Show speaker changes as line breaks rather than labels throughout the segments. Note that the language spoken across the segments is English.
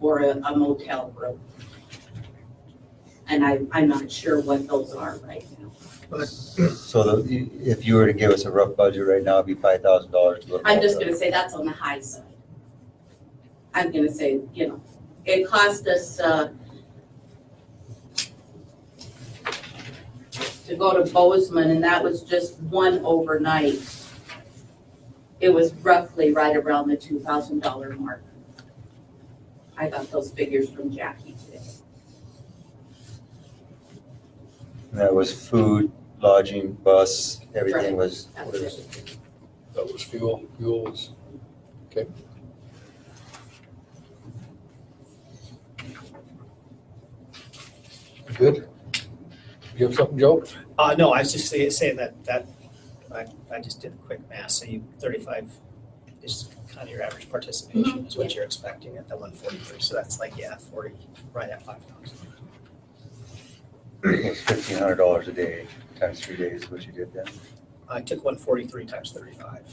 or a a motel room. And I, I'm not sure what those are right now.
So the- if you were to give us a rough budget right now, it'd be five thousand dollars.
I'm just gonna say that's on the high side. I'm gonna say, you know, it cost us, uh, to go to Bozeman, and that was just one overnight. It was roughly right around the two thousand dollar mark. I got those figures from Jackie today.
That was food, lodging, bus,
Right.
everything was,
That was
was,
it.
That was fuel, fuel was, okay. Good. You have something, Joe?
Uh, no, I was just say- saying that, that, I, I just did a quick math, so you, thirty-five is kind of your average participation is what you're expecting at the one forty-three, so that's like, yeah, forty, right at five thousand.
was fifteen hundred dollars a day, times three days, is what you did then.
I took one forty-three times thirty-five,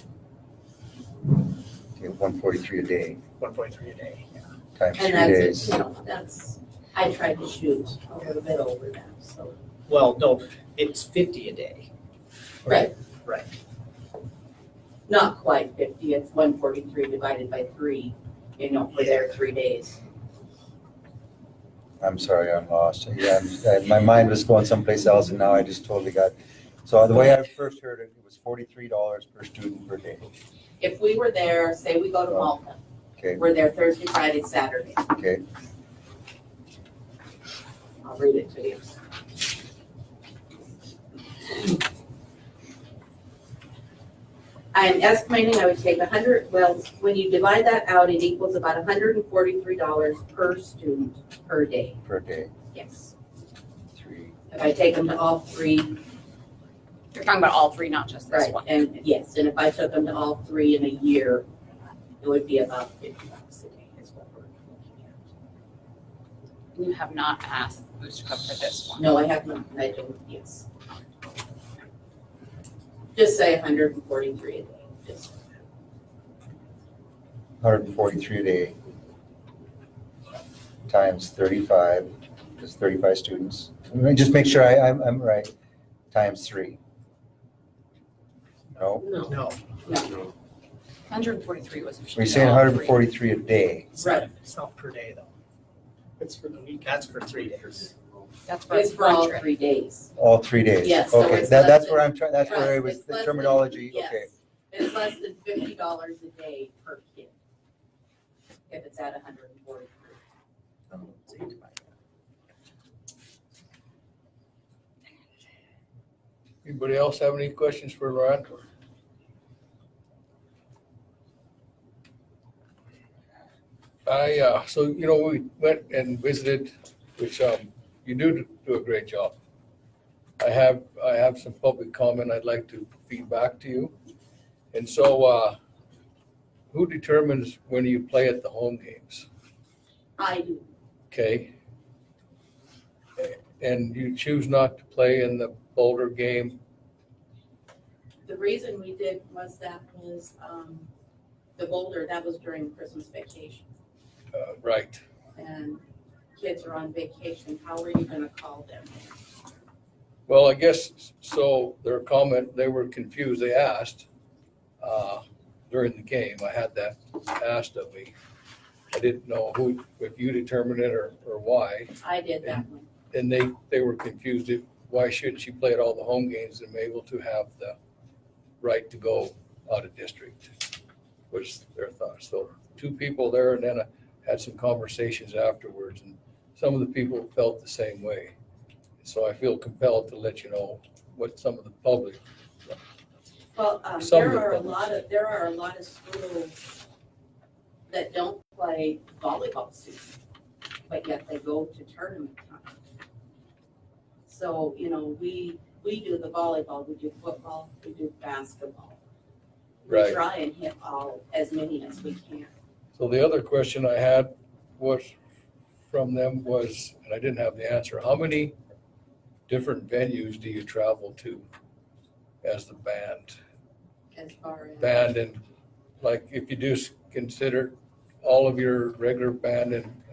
One forty-three a day,
one forty-three a day, yeah.
times three
And that's,
days.
it, you know, that's, I tried to shoot a little bit over that, so.
Well, no, it's fifty a day.
Right.
Right.
not quite fifty, it's one forty-three divided by three, you know, for their three days.
I'm sorry, I'm lost. Yeah, I'm just- I- my mind was going someplace else and now I just totally got. So the way I first heard it, it was forty-three dollars per student per day.
If we were there, say we go to Malta,
Okay,
we're there Thursday, Friday, Saturday,
okay.
I'll read it to you. I'm estimating I would take a hundred, well, when you divide that out, it equals about hundred and forty-three dollars per student per day,
Per day,
yes.
three.
If I take them to all three,
You're talking about all three, not just this
Right,
one.
and yes, and if I took them to all three in a year, it would be about fifty bucks a day is what we're looking
You have not asked Booster Club for this
at.
one.
No, I have not, I don't, yes. Just say hundred and forty-three a day, just,
Hundred and forty-three a day times thirty-five, that's thirty-five students. Let me Just make sure I, I'm, I'm right, times three. No,
No,
Hundred and forty-three was. if she
we're
did
saying
all
hundred and
three.
forty-three a day.
it's
Right.
not, it's not per day though. It's for the week. That's for three days.
That's for
it's for all
lunch rate.
three days.
All three days?
Yes, so
Okay,
it's
that,
less
that's
than-
where I'm trying, that's
Right,
where I was,
it's less
the
than-
terminology,
yes.
okay.
It's less than fifty dollars a day per kid. If it's at hundred and forty-three.
Oh,
Anybody else have any questions for Loretta? I, uh, so, you know, we went and visited, which, um, you do do a great job. I have, I have some public comment I'd like to feed back to you. And so, uh, who determines when you play at the home games?
I do,
Okay. And you choose not to play in the Boulder game
the reason we did was that was, um, the Boulder, that was during Christmas vacation.
Uh, Right.
and kids are on vacation, how are you gonna call them?
Well, I guess, so their comment, they were confused. They asked uh, during the game, I had that asked of me. I didn't know who, if you determined it or, or why.
I did that one.
And they, they were confused. if- Why shouldn't she play at all the home games and be able to have the right to go out of district? Was their thought. So two people there and then I had some conversations afterwards and some of the people felt the same way. So I feel compelled to let you know what some of the public,
Well, um,
Some of
there
the
are a
public.
lot of, there are a lot of schools that don't play volleyball season, but yet they go to tournament time. So, you know, we, we do the volleyball, we do football, we do basketball.
Right.
We try and hit all, as many as we can.
So the other question I had was from them was, and I didn't have the answer, how many different venues do you travel to as the band?
As far as,
Band and like if you do s- consider all of your regular band and